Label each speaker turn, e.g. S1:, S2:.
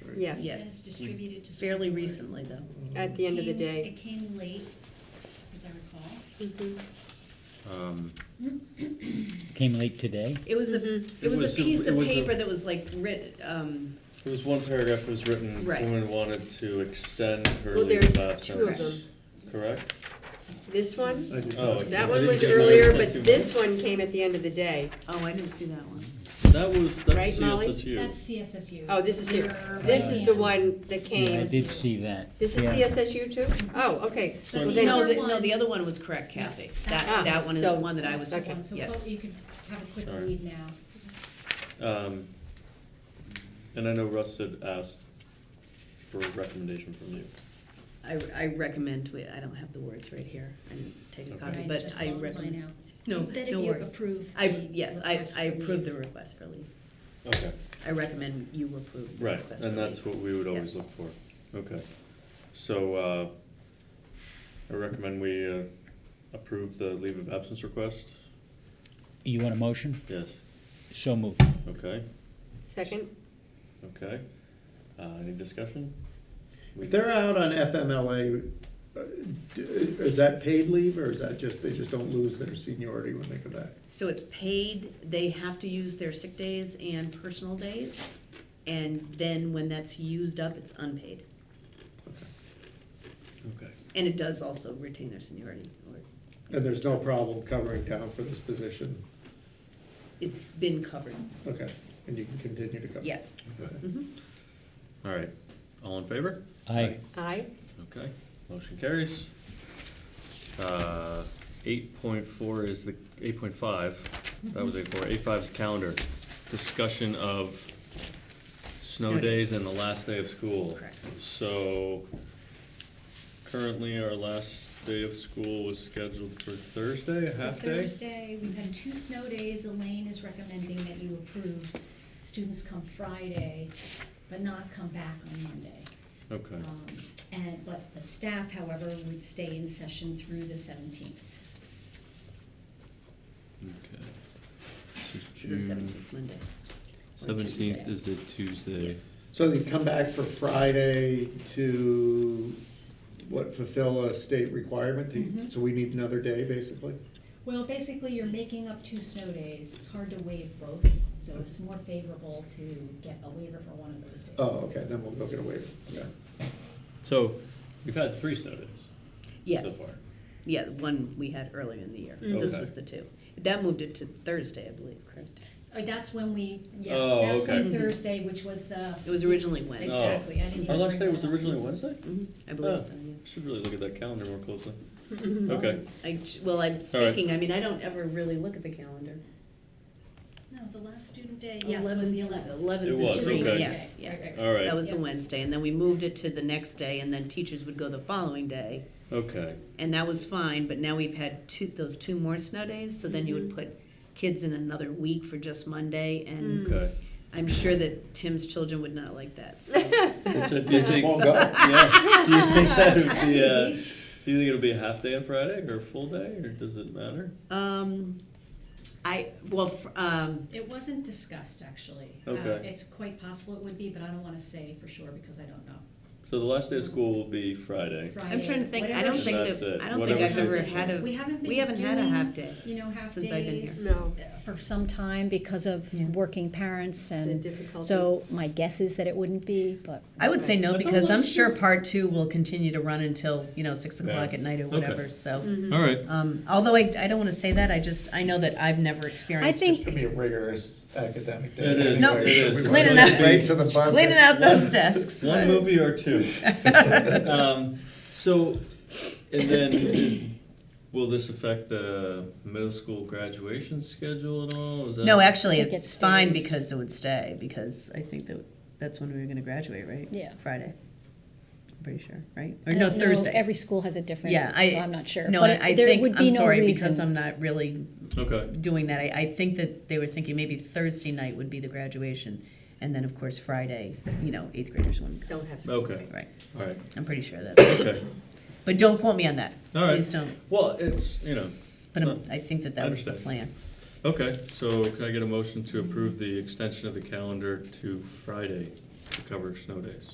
S1: records.
S2: Yes.
S3: Yes.
S4: Yes, distributed to. school
S3: Fairly
S4: board.
S3: recently, though.
S2: At the end of the
S4: Came-
S2: day.
S4: It came late, as I recall.
S2: Mhm.
S1: Um,
S5: Came late today?
S3: It was a,
S2: Mhm.
S4: Mm-hmm.
S3: it was a piece
S1: it
S3: of
S1: was a-
S3: paper that was like writ, um,
S1: There was one paragraph that was written,
S3: Right.
S1: woman wanted to extend her
S2: Well,
S1: leave
S2: there's
S1: of
S2: two of
S1: absence, correct?
S2: This one,
S1: Oh, I
S2: that
S1: didn't
S2: one was
S1: get my-
S2: earlier,
S1: I
S2: but
S1: sent you-
S2: this one came at the end of the day.
S3: oh, I didn't see that one.
S1: That was,
S2: Right,
S1: that's
S2: Molly?
S4: That's CSSU.
S1: CSSU.
S2: Oh, this is here.
S4: Your
S2: This is the
S4: plan.
S2: one that
S5: Yeah, I
S2: came.
S5: did see that.
S2: This is
S5: Yeah.
S2: CSSU too? Oh, okay.
S1: So
S2: Well,
S1: it's-
S2: then-
S3: No, the,
S4: Number
S3: no, the
S4: one.
S3: other one was correct, Kathy.
S2: Ah,
S3: That, that one is the
S2: so-
S3: one that I was,
S4: That's the
S2: Okay.
S4: one. So
S3: yes.
S4: fo- you could have a quick
S1: All right.
S4: read now.
S1: Um, and I know Russ had asked for a recommendation from you.
S3: I, I recommend, we- I don't have the words right here. I didn't take a
S1: Okay.
S3: copy,
S4: Right,
S3: but
S4: just
S3: I
S4: follow the line
S3: recommend.
S4: out.
S3: No,
S4: That if
S3: no
S4: you
S3: worries.
S4: approve
S3: I,
S4: the
S3: yes, I,
S4: request
S3: I
S4: for
S3: approve
S4: leave.
S3: the request for leave.
S1: Okay,
S3: I recommend you approve the
S1: right,
S3: request for leave.
S1: and that's what we would always
S3: Yes.
S1: look for, okay. So, uh, I recommend we, uh, approve the leave of absence request,
S5: You want a motion?
S1: yes,
S5: So moved.
S1: okay,
S2: Second?
S1: okay. Uh, any discussion? We-
S6: If they're out on FMLA, uh, d- is that paid leave or is that just, they just don't lose their seniority when they come back?
S3: So it's paid, they have to use their sick days and personal days, and then when that's used up, it's unpaid.
S1: Okay.
S3: And it does also retain their seniority, or
S6: And there's no problem covering down for this position?
S3: it's been covered,
S6: Okay, and you can continue to cover?
S3: yes.
S6: Okay.
S3: Mhm.
S1: All right, all in favor?
S5: Aye.
S2: Aye?
S1: Okay, motion carries. Uh, eight point four is the, eight point five, that was eight four. Eight five is calendar. Discussion of snow
S3: Snow
S1: days
S3: days.
S1: and the last day of school.
S3: Correct.
S1: So currently, our last day of school was scheduled for Thursday, a half day?
S4: Thursday, we've had two snow days. Elaine is recommending that you approve. Students come Friday, but not come back on Monday.
S1: Okay,
S4: Um, And, but the staff, however, would stay in session through the seventeenth.
S7: Okay.
S3: It's Oh. the seventeenth Monday. or Tuesday.
S7: Seventeenth is a Tuesday.
S3: Yes,
S6: So they come back for Friday to, what, fulfill a state requirement?
S4: Mhm.
S3: Mm-hmm.
S6: to- So we need another day, basically?
S4: Well, basically, you're making up two snow days. It's hard to waive both, so it's more favorable to get a waiver for one of those days.
S6: Oh, okay, then we'll go get a waiver, okay.
S1: so we've had three snow days so
S3: yes,
S1: far.
S3: yeah, the one we had earlier in the year,
S2: Mm.
S3: this
S1: Okay.
S3: was the two. That moved it to Thursday, I believe, correct?
S4: Uh, That's when we, yes,
S1: Oh,
S4: that's when
S1: okay. Oh.
S4: Thursday, which was the.
S3: It was originally Wednesday.
S4: Exactly, I didn't
S1: Our
S4: even
S1: last day
S4: bring
S1: was
S4: that up.
S1: originally Wednesday?
S3: Mhm, I
S1: Huh.
S3: believe so, yeah.
S1: Should really look at that calendar more closely. Okay.
S3: I, well, I'm speaking, I mean, I don't ever really look at the calendar.
S4: No, the last student day, yes, was the eleventh.
S1: It
S3: Eleventh
S1: was,
S3: is three,
S1: okay.
S3: yeah, yeah.
S1: All right,
S3: That was the
S4: Yep.
S3: Wednesday, and then we moved it to the next day, and then teachers would go the following day,
S1: okay.
S3: and that was fine, but now we've had two, those two more snow days, so then you
S4: Mm-hmm.
S3: would put kids in another week for just Monday, and
S4: Mm.
S1: Okay.
S3: I'm sure that Tim's children would not like that, so.
S1: So do you
S6: Just
S1: think,
S6: won't go?
S1: yeah, do you think that would
S4: That's
S1: be, uh,
S4: easy.
S1: do you think it'll be a half day on Friday or a full day or does it matter?
S3: Um, I, well, fr- um,
S4: It wasn't discussed, actually. Uh,
S1: Okay.
S4: It's quite possible it would be, but I don't wanna say for sure because I don't know.
S1: So the last day of school will be Friday.
S3: I'm trying to think, I
S4: Friday,
S3: don't
S4: whatever
S3: think
S1: That's
S3: that,
S1: it.
S3: I don't think I've
S1: Whatever
S3: ever
S1: she-
S3: had
S4: We
S3: a,
S4: haven't
S3: we haven't had a
S4: been
S3: half day.
S4: you know, half
S3: Since I've been
S4: days.
S2: here. No.
S4: uh, For some time because of
S3: Yeah.
S4: working parents
S2: The
S4: and,
S2: difficulty.
S4: so my guess is that it wouldn't be, but.
S3: I would say no
S1: I thought
S3: because I'm
S1: last
S3: sure
S1: year's-
S3: part two will continue to run until, you know, six o'clock
S1: Yeah.
S3: at night or
S1: Okay.
S3: whatever, so.
S8: Mm.
S1: All right.
S3: Um, although I, I don't want to say that, I just, I know that I've never
S2: I
S3: experienced.
S6: It's gonna
S2: think,
S6: be a rigorous academic day.
S1: It is,
S3: No,
S6: anyway,
S3: it
S6: so
S1: is.
S6: we
S3: Cleaning
S6: went
S3: up-
S6: Right to the buzzer.
S3: Cleaning out those desks.
S1: One movie or two. um, so, and then will this affect the middle school graduation schedule at all? Is that
S3: No, actually,
S4: I think it
S3: it's fine
S4: stays.
S3: because it would stay, because I think that, that's when we were going to graduate, right?
S8: Yeah.
S3: Friday. I'm pretty sure, right? Or
S8: I
S3: no,
S8: don't know.
S3: Thursday.
S8: Every school has a different,
S3: Yeah,
S8: so
S3: I.
S8: I'm not sure.
S3: No,
S8: But
S3: I I
S8: there
S3: think,
S8: would
S3: I'm
S8: be no
S3: sorry, because
S8: reason.
S3: I'm not really
S1: Okay.
S3: doing that. I, I think that they were thinking maybe Thursday night would be the graduation, and then, of course, Friday, you know, eighth graders wouldn't come,
S2: don't have. school.
S1: Okay.
S3: right?
S1: All right.
S3: I'm pretty sure that,
S1: Okay.
S3: but don't quote me on that.
S1: All right.
S3: Please don't,
S1: Well, it's, you know,
S3: but
S1: No.
S3: I'm- I think that that was the
S1: Understand.
S3: plan.
S1: okay. So can I get a motion to approve the extension of the calendar to Friday? to cover snow days.